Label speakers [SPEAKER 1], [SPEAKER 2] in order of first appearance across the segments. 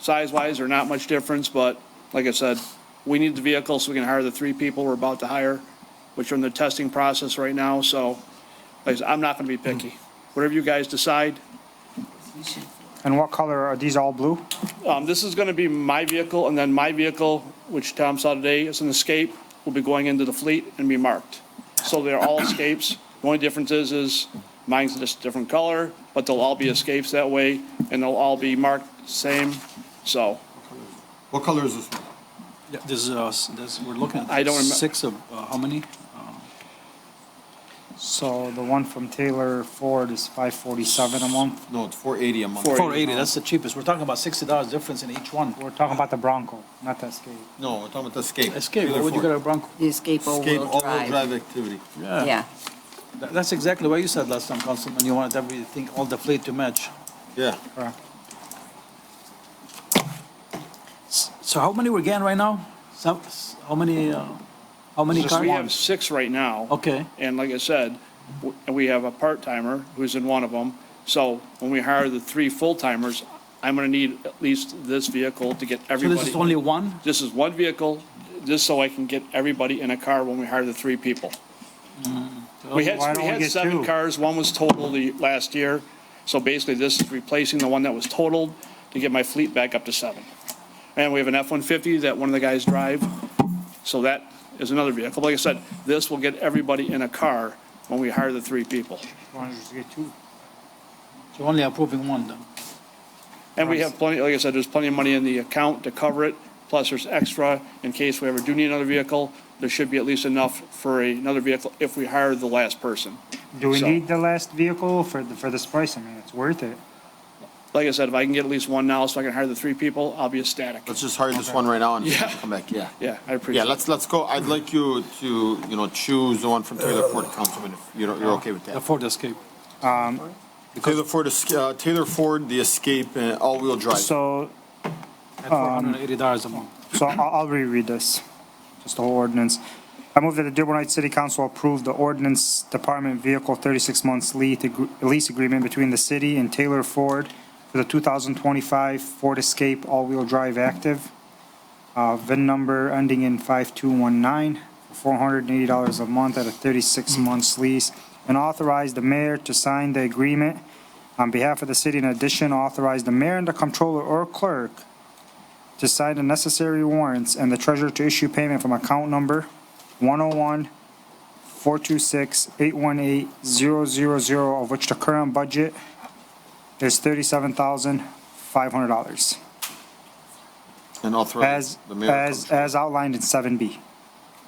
[SPEAKER 1] Size-wise, they're not much difference, but like I said, we need the vehicle so we can hire the three people we're about to hire, which are in the testing process right now, so like I said, I'm not going to be picky. Whatever you guys decide,
[SPEAKER 2] And what color, are these all blue?
[SPEAKER 1] Um, this is gonna be my vehicle, and then my vehicle, which Tom saw today, is an escape, will be going into the fleet and be marked. So they're all escapes. The only difference is, is mine's just a different color, but they'll all be escapes that way, and they'll all be marked same, so.
[SPEAKER 3] What color is this one?
[SPEAKER 4] Yeah, This is, uh, s- this, we're looking at.
[SPEAKER 1] I don't remem-
[SPEAKER 4] Six of, uh, how many?
[SPEAKER 2] So the one from Taylor Ford is five forty-seven a month.
[SPEAKER 3] No, it's four eighty a month.
[SPEAKER 1] 480.
[SPEAKER 4] Four eighty, that's the cheapest. We're talking about sixty dollars difference in each one.
[SPEAKER 2] We're talking about the Bronco, not the Escape.
[SPEAKER 3] No, we're talking about the Escape.
[SPEAKER 4] Escape,
[SPEAKER 3] Taylor
[SPEAKER 4] what would you
[SPEAKER 3] Ford.
[SPEAKER 4] got a Bronco?
[SPEAKER 5] The escape
[SPEAKER 3] Escape
[SPEAKER 5] all-wheel
[SPEAKER 3] all-wheel
[SPEAKER 5] drive.
[SPEAKER 3] drive activity.
[SPEAKER 5] Yeah,
[SPEAKER 4] Tha- That's exactly what you said last time, Councilman. You wanted everything, all the fleet to match.
[SPEAKER 3] Yeah,
[SPEAKER 2] Correct.
[SPEAKER 4] S- So how many we're getting right now? Some, s- how many, uh, how many
[SPEAKER 1] Just- We have
[SPEAKER 4] cars?
[SPEAKER 1] six right now.
[SPEAKER 4] Okay.
[SPEAKER 1] And like I said, w- and we have a part-timer who's in one of them. So when we hire the three full-timers, I'm gonna need at least this vehicle to get
[SPEAKER 4] So
[SPEAKER 1] everybody.
[SPEAKER 4] this is only one?
[SPEAKER 1] This is one vehicle, just so I can get everybody in a car when we hire the three people. We had,
[SPEAKER 2] Mm. Why don't
[SPEAKER 1] we
[SPEAKER 2] we
[SPEAKER 1] had
[SPEAKER 2] get
[SPEAKER 1] seven
[SPEAKER 2] two?
[SPEAKER 1] cars, one was totaled the last year, so basically this is replacing the one that was totaled to get my fleet back up to seven. And we have an F-150 that one of the guys drive, so that is another vehicle. Like I said, this will get everybody in a car when we hire the three people.
[SPEAKER 2] Wanted to get two.
[SPEAKER 4] So only approving one then?
[SPEAKER 1] And we have plenty, like I said, there's plenty of money in the account to cover it, plus there's extra in case we ever do need another vehicle. There should be at least enough for a- another vehicle if we hire the last person.
[SPEAKER 2] Do we
[SPEAKER 1] So-
[SPEAKER 2] need the last vehicle for, the- for this price? I mean, it's worth it.
[SPEAKER 1] Like I said, if I can get at least one now so I can hire the three people, I'll be ecstatic.
[SPEAKER 3] let's just hire this one right now and
[SPEAKER 1] Yeah.
[SPEAKER 3] come back, yeah.
[SPEAKER 1] Yeah, I appreciate
[SPEAKER 3] Yeah,
[SPEAKER 1] it.
[SPEAKER 3] let's, let's go. I'd like you to, you know, choose the one from Taylor Ford, Councilman, if you're, you're okay with
[SPEAKER 4] The
[SPEAKER 3] that.
[SPEAKER 4] Ford Escape.
[SPEAKER 3] Taylor Ford, Esca- uh, Taylor Ford, the Escape, and all-wheel drive.
[SPEAKER 2] So,
[SPEAKER 1] Um,
[SPEAKER 4] At four hundred and eighty dollars a month.
[SPEAKER 2] so I'll, I'll reread this, just the whole ordinance. I move that the Dearborn Heights City Council approve the ordinance department vehicle thirty-six months lease, agr- lease agreement between the city and Taylor Ford for the two thousand twenty-five Ford Escape all-wheel drive active. Uh, VIN number ending in five-two-one-nine, four hundred and eighty dollars a month at a thirty-six months lease. And authorize the mayor to sign the agreement on behalf of the city. In addition, authorize the mayor and the comptroller or clerk to sign the necessary warrants and the treasurer to issue payment from account number 101-426-818-000, of which the current budget is $37,500,
[SPEAKER 3] And authorize
[SPEAKER 2] as,
[SPEAKER 3] the mayor. to
[SPEAKER 2] as, as outlined in 7B.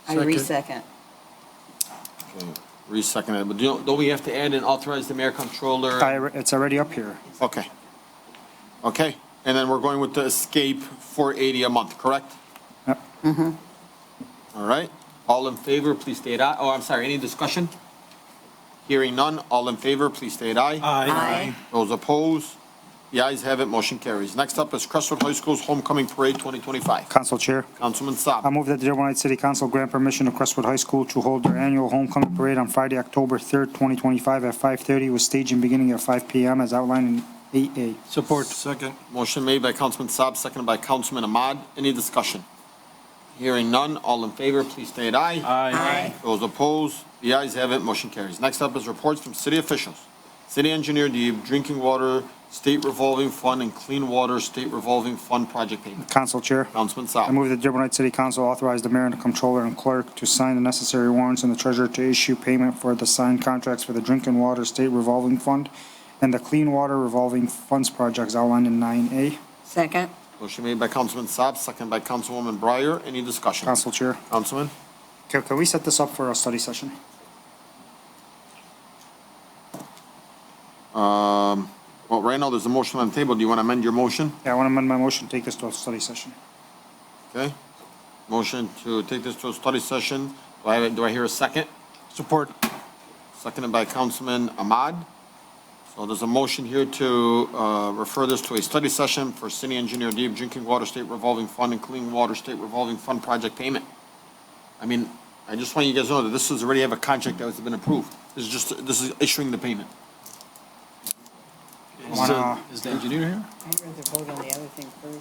[SPEAKER 5] I resecond.
[SPEAKER 3] Re-second it, but don't, don't we have to add and authorize the mayor controller?
[SPEAKER 2] I- It's already up here.
[SPEAKER 3] Okay. Okay, and then we're going with the Escape 480 a month, correct?
[SPEAKER 2] Yep.
[SPEAKER 3] All right, all in favor, please state aye. Oh, I'm sorry, any discussion? Hearing none, all in favor, please state aye.
[SPEAKER 5] Aye.
[SPEAKER 3] Those opposed? The ayes have it, motion carries. Next up is Crestwood High School's Homecoming Parade 2025.
[SPEAKER 2] Council Chair.
[SPEAKER 3] Councilman
[SPEAKER 2] I
[SPEAKER 3] Saab.
[SPEAKER 2] move that the Dearborn Heights City Council grant permission to Crestwood High School to hold their annual homecoming parade on Friday, October 3rd, 2025 at 5:30 with staging beginning at 5 PM as outlined in 8A.
[SPEAKER 4] Support. Second.
[SPEAKER 3] Motion made by Councilman Saab, seconded by Councilman Ahmad. Any discussion? Hearing none, all in favor, please state aye.
[SPEAKER 4] Aye.
[SPEAKER 3] Those opposed, the ayes have it, motion carries. Next up is reports from city officials. City engineer, the drinking water state revolving fund and clean water state revolving fund project payment.
[SPEAKER 2] Council Chair.
[SPEAKER 3] Councilman
[SPEAKER 2] I
[SPEAKER 3] Saab.
[SPEAKER 2] move that the Dearborn Heights City Council authorize the mayor and the comptroller and clerk to sign the necessary warrants and the treasurer to issue payment for the signed contracts for the Drinking Water State Revolving Fund and the Clean Water Revolving Funds projects outlined in 9A.
[SPEAKER 5] Second?
[SPEAKER 3] Motion made by Councilman Saab, second by Councilwoman Breyer. Any discussion?
[SPEAKER 2] Council Chair,
[SPEAKER 3] Councilman?
[SPEAKER 2] can, can we set this up for a study session?
[SPEAKER 3] Well, right now, there's a motion on the table. Do you want to amend your motion?
[SPEAKER 2] Yeah, I want to amend my motion, take this to a study session.
[SPEAKER 3] Okay. Motion to take this to a study session. Do I, do I hear a second?
[SPEAKER 4] Support.
[SPEAKER 3] Seconded by Councilman Ahmad. So there's a motion here to uh, refer this to a study session for city engineer deep drinking water state revolving fund and clean water state revolving fund project payment. I mean, I just want you guys to know that this is already have a contract that has been approved. This is just, this is issuing the payment.
[SPEAKER 4] Is the- is the engineer here?
[SPEAKER 5] I'd rather vote on the other thing first.